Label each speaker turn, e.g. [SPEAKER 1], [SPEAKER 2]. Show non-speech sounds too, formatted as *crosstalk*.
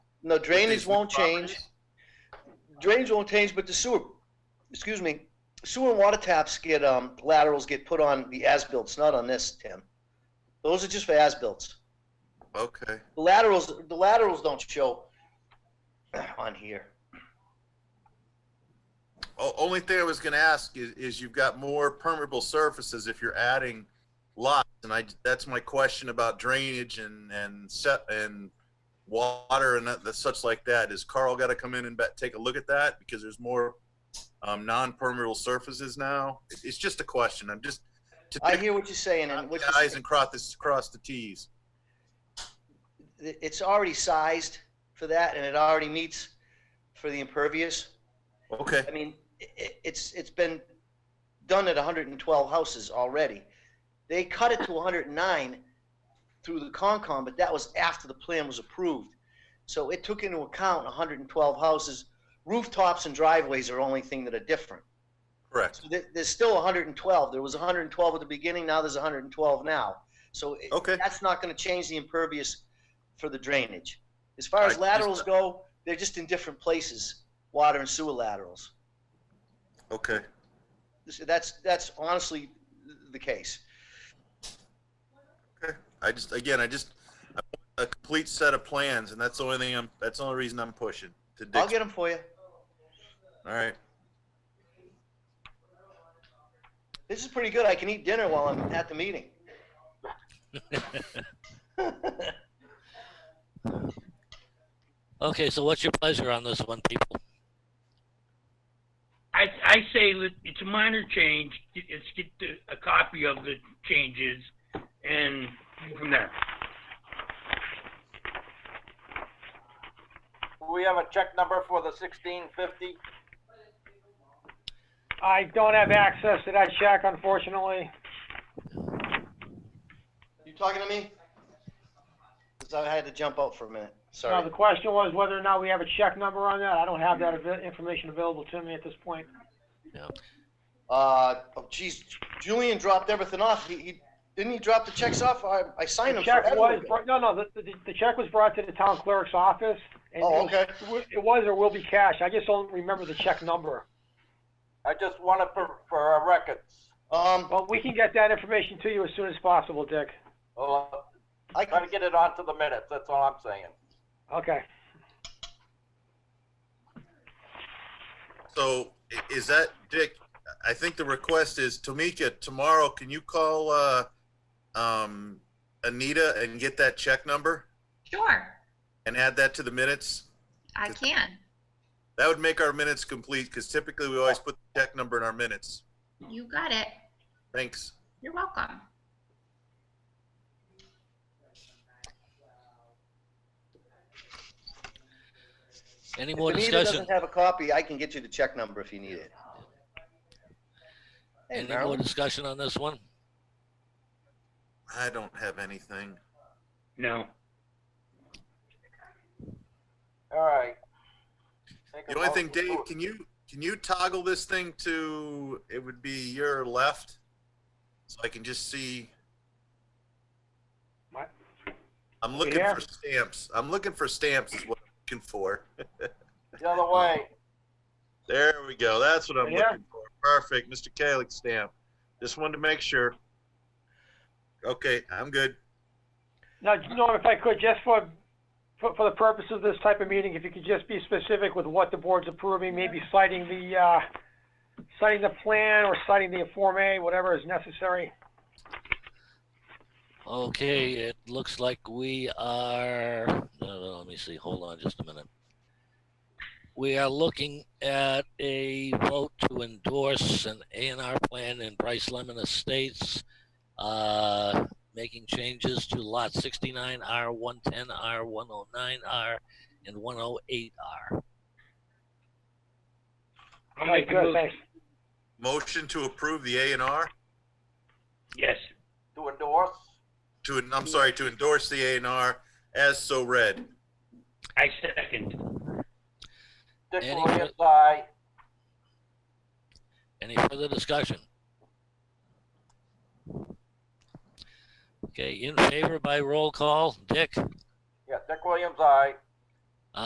[SPEAKER 1] No, drainage
[SPEAKER 2] basement
[SPEAKER 1] won't
[SPEAKER 2] properties?
[SPEAKER 1] change. Drainage won't change, but the sewer, excuse me, sewer and water taps get, um, laterals get put on the as-builts, not on this, Tim. Those are just for as-builts.
[SPEAKER 2] Okay.
[SPEAKER 1] The laterals, the laterals don't show *clears throat* on here.
[SPEAKER 2] O- only thing I was gonna ask is, is you've got more permeable surfaces if you're adding lots, and I, that's my question about drainage and, and set, and water and that- such like that. Is Carl gotta come in and bet, take a look at that? Because there's more, um, non-permeable surfaces now? It- It's just a question. I'm just to
[SPEAKER 1] I
[SPEAKER 2] take
[SPEAKER 1] hear what you're saying and what
[SPEAKER 2] the
[SPEAKER 1] you're
[SPEAKER 2] i's
[SPEAKER 1] saying.
[SPEAKER 2] and cross this, cross the t's.
[SPEAKER 1] It's already sized for that and it already meets for the impervious.
[SPEAKER 2] Okay,
[SPEAKER 1] I mean, i- i- it's, it's been done at 112 houses already. They cut it to 109 through the Concom, but that was after the plan was approved. So it took into account 112 houses. Rooftops and driveways are the only thing that are different.
[SPEAKER 2] correct.
[SPEAKER 1] So there, there's still 112. There was 112 at the beginning, now there's 112 now. So it-
[SPEAKER 2] Okay,
[SPEAKER 1] that's not gonna change the impervious for the drainage. As far as
[SPEAKER 2] Right, just
[SPEAKER 1] laterals
[SPEAKER 2] the-
[SPEAKER 1] go, they're just in different places, water and sewer laterals.
[SPEAKER 2] okay.
[SPEAKER 1] This- That's, that's honestly the case.
[SPEAKER 2] I just, again, I just, I want a complete set of plans, and that's the only thing I'm, that's the only reason I'm pushing to
[SPEAKER 1] I'll
[SPEAKER 2] Dick's.
[SPEAKER 1] get them for you.
[SPEAKER 2] All right.
[SPEAKER 1] This is pretty good. I can eat dinner while I'm at the meeting.
[SPEAKER 3] Okay, so what's your pleasure on this one, people?
[SPEAKER 4] I, I say that it's a minor change, Get- let's get the, a copy of the changes and go from there.
[SPEAKER 5] We have a check number for the sixteen fifty.
[SPEAKER 6] I don't have access to that check, unfortunately.
[SPEAKER 1] You talking to me? 'Cause I had to jump out for a minute.
[SPEAKER 6] Now,
[SPEAKER 1] Sorry.
[SPEAKER 6] the question was whether or not we have a check number on that. I don't have that avail- information available to me at this point.
[SPEAKER 1] Uh, oh geez, Julian dropped everything off. He, he, didn't he drop the checks off? I, I signed them
[SPEAKER 6] The check
[SPEAKER 1] for
[SPEAKER 6] was,
[SPEAKER 1] everyone.
[SPEAKER 6] brought- no, no, the, the, the check was brought to the town clerk's office. and
[SPEAKER 1] Oh,
[SPEAKER 6] it was- It was or will be cash. I just don't remember the check number.
[SPEAKER 5] I just want it for, for our records.
[SPEAKER 1] Um,
[SPEAKER 6] But we can get that information to you as soon as possible, Dick.
[SPEAKER 5] Well,
[SPEAKER 1] I
[SPEAKER 5] try
[SPEAKER 1] can,
[SPEAKER 5] to get it onto the minutes, that's all I'm saying.
[SPEAKER 6] Okay.
[SPEAKER 2] So i- is that, Dick, I think the request is, Tamika, tomorrow, can you call, uh, um, Anita and get that check number
[SPEAKER 7] Sure,
[SPEAKER 2] and add that to the minutes?
[SPEAKER 7] I
[SPEAKER 2] Just-
[SPEAKER 7] can.
[SPEAKER 2] That would make our minutes complete, because typically we always put the check number in our minutes.
[SPEAKER 7] You got it.
[SPEAKER 2] Thanks.
[SPEAKER 7] You're welcome.
[SPEAKER 3] Any more
[SPEAKER 1] if Anita
[SPEAKER 3] discussion?
[SPEAKER 1] doesn't have a copy, I can get you the check number if you need it. Hey,
[SPEAKER 3] Any more
[SPEAKER 1] Marilyn.
[SPEAKER 3] discussion on this one?
[SPEAKER 2] I don't have anything.
[SPEAKER 4] No.
[SPEAKER 5] All right. Make a
[SPEAKER 2] The only thing,
[SPEAKER 5] motion to-
[SPEAKER 2] Dave, can you, can you toggle this thing to, it would be your left? So I can just see.
[SPEAKER 6] What?
[SPEAKER 2] I'm looking
[SPEAKER 6] here?
[SPEAKER 2] for stamps. I'm looking for stamps is what I'm looking for.
[SPEAKER 5] The other way,
[SPEAKER 2] There we go. That's what I'm
[SPEAKER 6] Yeah.
[SPEAKER 2] looking for. Perfect. Mr. Kalik stamp. Just wanted to make sure. Okay, I'm good.
[SPEAKER 6] Now, Norm, if I could, just for, for, for the purpose of this type of meeting, if you could just be specific with what the board's approving, maybe citing the, uh, citing the plan or citing the Form A, whatever is necessary.
[SPEAKER 3] Okay, it looks like we are, no, no, let me see, hold on just a minute. We are looking at a vote to endorse an A and R plan in Bryce Lemon Estates, uh, making changes to lot sixty-nine R, one ten R, one oh nine R, and one oh eight R.
[SPEAKER 4] I'll make a
[SPEAKER 6] Good,
[SPEAKER 4] motion.
[SPEAKER 6] thanks.
[SPEAKER 2] Motion to approve the A and R
[SPEAKER 4] Yes,
[SPEAKER 5] to endorse,
[SPEAKER 2] to, I'm sorry, to endorse the A and R as so read.
[SPEAKER 4] I second.
[SPEAKER 5] Dick
[SPEAKER 3] Any-
[SPEAKER 5] Williams, aye.
[SPEAKER 3] Any further discussion? Okay, in favor by roll call, Dick,
[SPEAKER 5] Yeah, Dick Williams, aye.